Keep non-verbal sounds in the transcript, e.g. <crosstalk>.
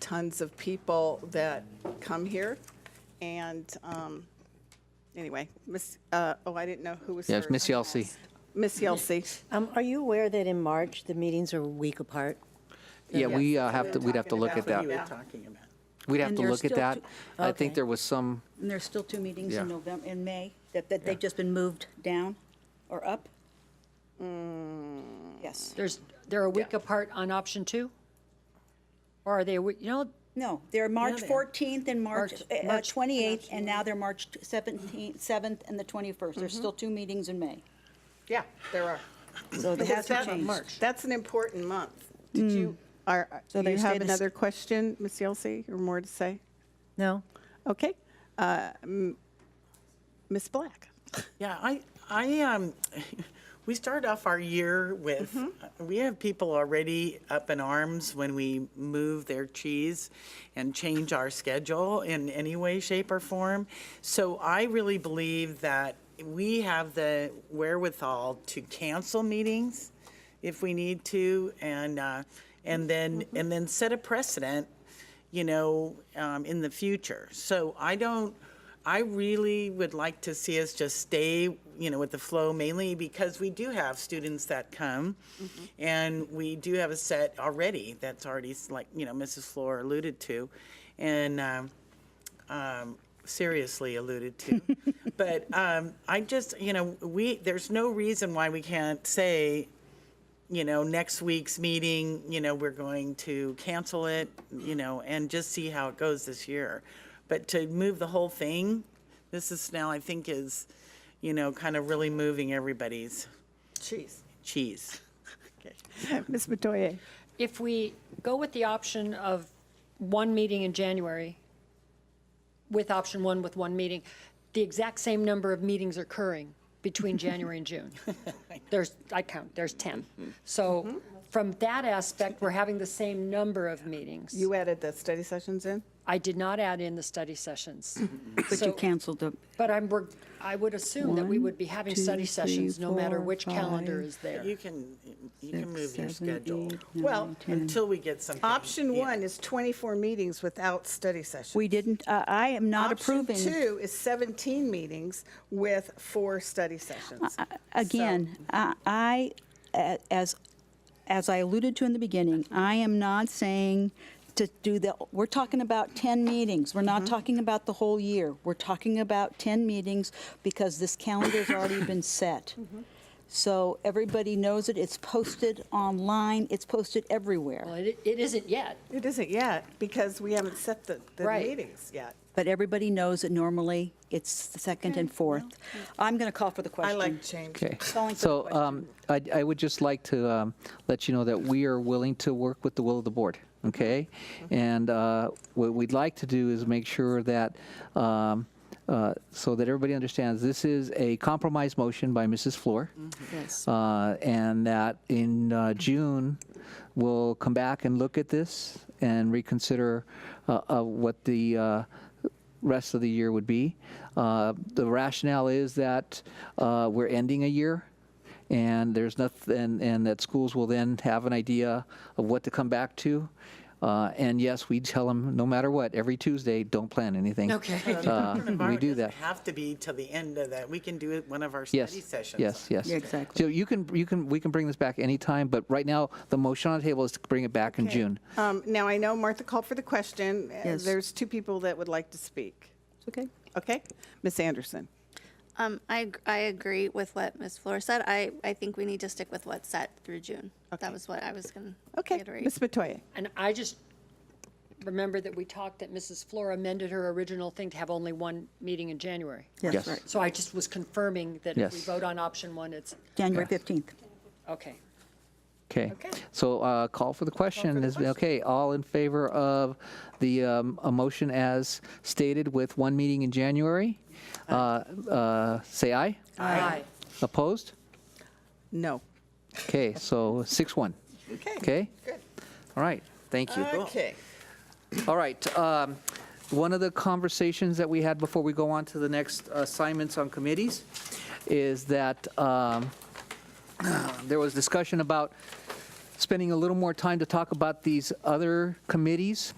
tons of people that come here. And um, anyway, Miss, uh, oh, I didn't know who was Yes, first. Miss Yelsey. Miss Yelsey. Um, Are you aware that in March, the meetings are a week apart? Yeah, we uh, have to, we'd have to talking look at about that. it. you were Yeah. talking about. We'd have And to there's look at still that. two- I think okay. there was some, And there's still two meetings Yeah. in November, in May, that, that they've just been moved down or up? Yes. There's, they're a week apart on option two? Or are they, a wee- you know, No, they're March they are. 14th and March March- uh, uh, March- 28th, and now they're March 17th, 7th and the 21st. There's still two meetings in May. Yeah, there are. So it hasn't That's- changed. That's an important month. Did you, are, So you there's have been a s- another question, Miss Yelsey, or more to say? No? Okay. Uh, m- Ms. Black? Yeah, I, I, um, <laughs> we start off our year with, Mm-hmm. we have people already up in arms when we move their cheese and change our schedule in any way, shape, or form. So I really believe that we have the wherewithal to cancel meetings if we need to, and, uh, and then, Mm-hmm. and then set a precedent, you know, um, in the future. So I don't, I really would like to see us just stay, you know, with the flow mainly because we do have students that come and we do have a set already that's already, s- like, you know, Mrs. Flor alluded to. And, um, um, seriously alluded to. but um, I just, you know, we there's no reason why we can't say, you know, next week's meeting, you know, we're going to cancel it, you know, and just see how it goes this year. But to move the whole thing, this is now I think is, you know, kind of really moving everybody's cheese. Cheese. Ms. Metoyer? if we go with the option of one meeting in January, with option one with one meeting, the exact same number of meetings are occurring between January and June. There's, I count, there's 10. So from that aspect, we're having the same number of meetings. You added the study sessions in? I did not add in the study sessions. <clears throat> But you canceled the, But I'm, we're- I would assume that we would be having One, study two, sessions, no three, matter four, which calendar five. is there. You can you can Six, move your seven, schedule. eight, well, nine, ten. until we get something. Option Yeah. one is 24 meetings without study sessions. we didn't, I I am not approving. Option two is 17 meetings with four study sessions. Again, I- I, a- as, as I alluded to in the beginning, I am not saying to do the, we're talking about 10 meetings. We're Mm-hmm. not talking about the whole year. We're talking about 10 meetings because this calendar's already <coughs> been set. Mm-hmm. So everybody knows it. It's posted online. It's posted Well, everywhere. it, it isn't yet. It isn't yet, because we haven't set the, the Right. meetings yet. But everybody knows that normally it's the second and fourth. I'm going to call for the I question. like change. okay. Calling for the So um, I I would just like to um, let you know that we are willing to work with the will of the board, okay? And uh, what we'd like to do is make sure that, um, uh, so that everybody understands, this is a compromise motion by Mrs. Flor. Yes. uh, and that in uh, June, we'll come back and look at this and reconsider uh, uh, what the uh, rest of the year would be. Uh, The rationale is that uh, we're ending a year, and there's nothing, and- and that schools will then have an idea of what to come back to. Uh, And yes, we tell them, no matter what, every Tuesday, don't plan anything. Okay. Uh, the Uh, Department of we Art do doesn't that. Have to be till the end of that. We can do it one of our Yes. study sessions. Yes, yes. Yeah, exactly. So you can, you can, we can bring this back anytime, but right now, the motion on the table is to bring it back in June. Um, Now, I know Martha called for the question. Uh, Yes. There's two people that would like to speak. Okay. Okay? Miss Anderson? Um, I, ag- I agree with what Ms. Flores said. I, I think we need to stick with what's set through June. That was what I was going to Okay. reiterate. Miss Metoyer? And I just remember that we talked that Mrs. Flora amended her original thing to have only one meeting in January. Yes. Yes, right. So I just was confirming that if we Yes. vote on option one, it's, January 15th. okay. Okay. Okay. So uh, call for the question. Is- Okay, all in favor of the um, a motion as stated with one meeting in January? Uh, uh, Say aye. Aye. Opposed? No. Okay, so 6-1. Okay? Good. All right, thank you. Okay. All right. um, One of the conversations that we had before we go on to the next assignments on committees is that um, <clears throat> there was discussion about spending a little more time to talk about these other committees.